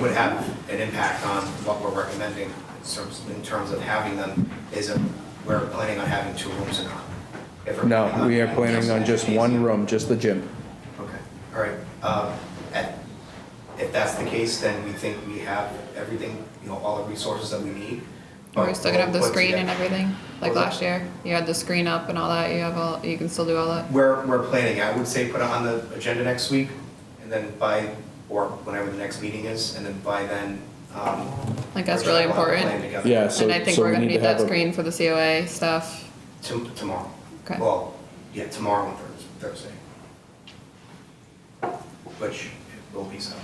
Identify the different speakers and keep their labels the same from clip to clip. Speaker 1: would have an impact on what we're recommending in terms, in terms of having them, is if we're planning on having two rooms or not? If we're planning
Speaker 2: No,
Speaker 1: on
Speaker 2: we are
Speaker 1: having
Speaker 2: planning on just one room, just the gym.
Speaker 1: Okay, all right. Um, and If that's the case, then we think we have everything, you know, all the resources that we need.
Speaker 3: Are
Speaker 2: Oh,
Speaker 3: we still gonna have the
Speaker 1: But-
Speaker 3: screen and everything, like last year? You had the screen up and all that, you have all, you can still do all that?
Speaker 1: We're, we're planning, I would say put it on the agenda next week, and then by, or whenever the next meeting is, and then by then, um.
Speaker 3: Like, that's
Speaker 1: we're
Speaker 3: really
Speaker 1: gonna have a plan
Speaker 3: important.
Speaker 1: together.
Speaker 2: Yeah, so,
Speaker 3: And I think
Speaker 2: so
Speaker 3: we're
Speaker 2: we
Speaker 3: gonna
Speaker 2: need to
Speaker 3: need that
Speaker 2: have a,
Speaker 3: screen for the COA stuff.
Speaker 1: Tom- Tomorrow.
Speaker 3: Okay.
Speaker 1: Well, yeah, tomorrow and Thurs- Thursday. Which it will be so.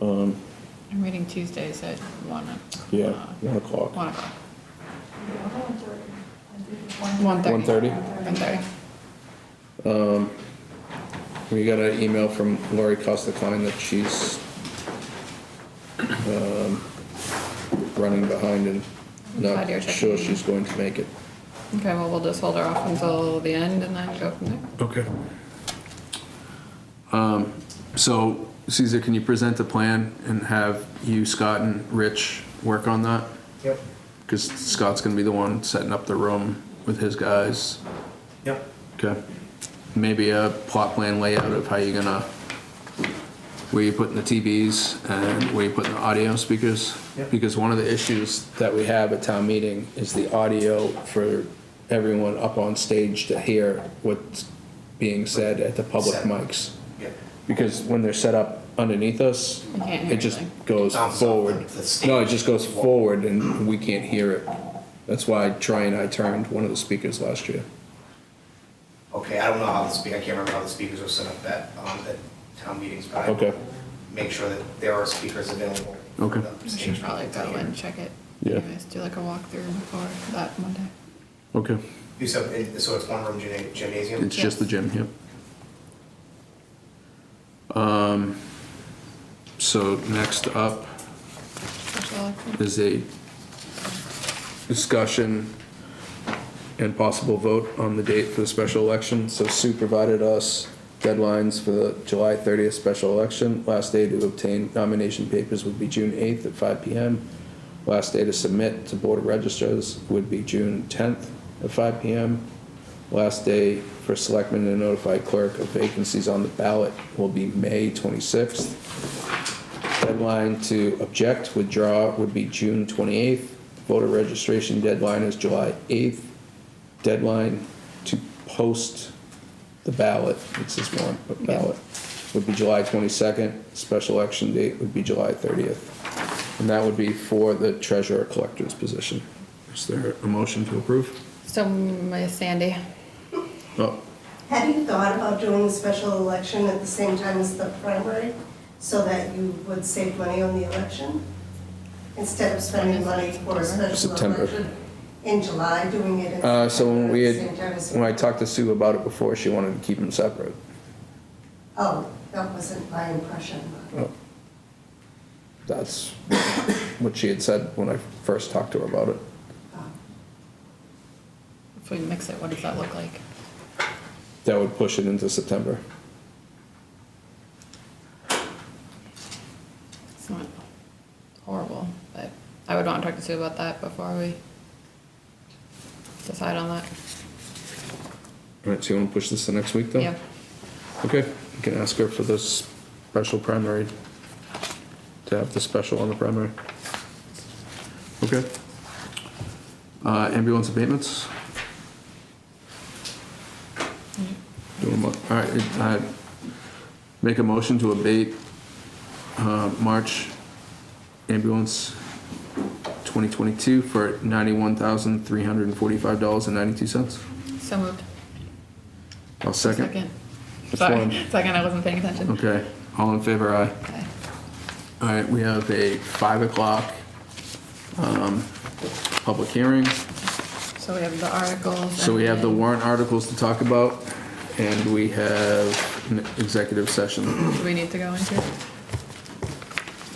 Speaker 2: um,
Speaker 3: I'm meeting Tuesdays at one,
Speaker 2: yeah,
Speaker 3: uh,
Speaker 2: one o'clock.
Speaker 3: one o'clock,
Speaker 4: One
Speaker 3: one thirty.
Speaker 2: 1:30?
Speaker 3: One thirty.
Speaker 2: Um, we got an email from Lori Costa Klein that she's, um, running behind and
Speaker 3: Glad you're
Speaker 2: not sure
Speaker 3: checking.
Speaker 2: she's going to make it.
Speaker 3: Okay, well, we'll just hold her off until the end and then go from there.
Speaker 5: Okay. Um, So Caesar, can you present the plan and have you, Scott, and Rich work on that?
Speaker 1: Yep,
Speaker 5: Because Scott's gonna be the one setting up the room with his guys.
Speaker 1: yep.
Speaker 5: Okay. Maybe a plot plan layout of how you're gonna, where you're putting the TVs and where you're putting the audio speakers.
Speaker 1: Yep.
Speaker 5: Because one of the issues that we have at town meeting is the audio for everyone up on stage to hear what's being said at the public
Speaker 1: Said.
Speaker 5: mics.
Speaker 1: Yep.
Speaker 5: Because when they're set up underneath us,
Speaker 3: You can't hear
Speaker 5: it just
Speaker 3: anything.
Speaker 5: goes
Speaker 1: Sounds
Speaker 5: forward.
Speaker 1: off the stage.
Speaker 5: No, it just goes forward and we can't hear it. That's why Troy and I turned one of the speakers last year.
Speaker 1: Okay, I don't know how the speak, I can't remember how the speakers were set up at, um, at town meetings, but I will
Speaker 5: Okay.
Speaker 1: make sure that there are speakers available. for
Speaker 5: Okay.
Speaker 1: the
Speaker 3: We
Speaker 1: stage
Speaker 3: should probably go
Speaker 1: to hear.
Speaker 3: and check it.
Speaker 5: Yeah.
Speaker 3: You guys do like a walkthrough before that Monday.
Speaker 5: Okay.
Speaker 1: You said, it- so it's one room gyna- gymnasium?
Speaker 5: It's just the gym, yep. Um, Um, so next up
Speaker 3: Special election.
Speaker 5: is a discussion and possible vote on the date for the special election. So Sue provided us deadlines for the July thirtieth special election. Last day to obtain nomination papers would be June eighth at five P M. Last day to submit to Board of Registers would be June tenth at five P M. Last day for selectmen to notify clerk of vacancies on the ballot will be May twenty-sixth. Deadline to object, withdraw would be June 28th. Voter registration deadline is July 8th. Deadline to post the ballot, it's this one, but ballot, would be July 22nd. Special election date would be July 30th. And that would be for the treasurer collector's position. Is there a motion to approve?
Speaker 3: So, Miss Sandy,
Speaker 5: Oh,
Speaker 4: Have you thought about doing the special election at the same time as the primary so that you would save money on the election? Instead of spending money for a special
Speaker 5: September.
Speaker 4: election in July, doing it in
Speaker 5: uh, so when
Speaker 4: September
Speaker 5: we
Speaker 4: at
Speaker 5: had,
Speaker 4: the same time as.
Speaker 5: when I talked to Sue about it before, she wanted to keep them separate.
Speaker 4: Oh, that wasn't my impression.
Speaker 5: Oh. That's what she had said when I first talked to her about it.
Speaker 4: Oh.
Speaker 3: if we mix it, what does that look like?
Speaker 5: That would push it into September.
Speaker 3: It's not horrible, but I would want to talk to Sue about that before we decide on that.
Speaker 5: All right, so you want to push this to next week, though?
Speaker 3: Yeah,
Speaker 5: Okay, you can ask her for this special primary, to have the special on the primary. Okay. Uh, ambulance abatements? Do a mo- all right, it- I make a motion to abate, uh, March ambulance 2022 for $91,345.92.
Speaker 3: so moved.
Speaker 5: I'll second.
Speaker 3: Second.
Speaker 5: Which
Speaker 3: Sorry,
Speaker 5: one?
Speaker 3: second, I wasn't paying attention.
Speaker 5: Okay, all in favor, aye.
Speaker 3: Okay.
Speaker 5: All right, we have a five o'clock, um, public hearing.
Speaker 3: So we have the articles.
Speaker 5: So we have the
Speaker 3: and-
Speaker 5: warrant articles to talk about, and we have an executive session.
Speaker 3: Do we need to go into?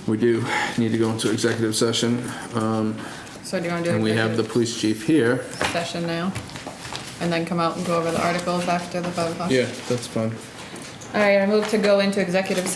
Speaker 5: We do need to go into executive session, um,
Speaker 3: So do you want to do?
Speaker 5: and we have the
Speaker 3: executive
Speaker 5: police chief here.
Speaker 3: Session now, and then come out and go over the articles after the vote.
Speaker 5: Yeah, that's fine.
Speaker 3: All right, I move to go into executive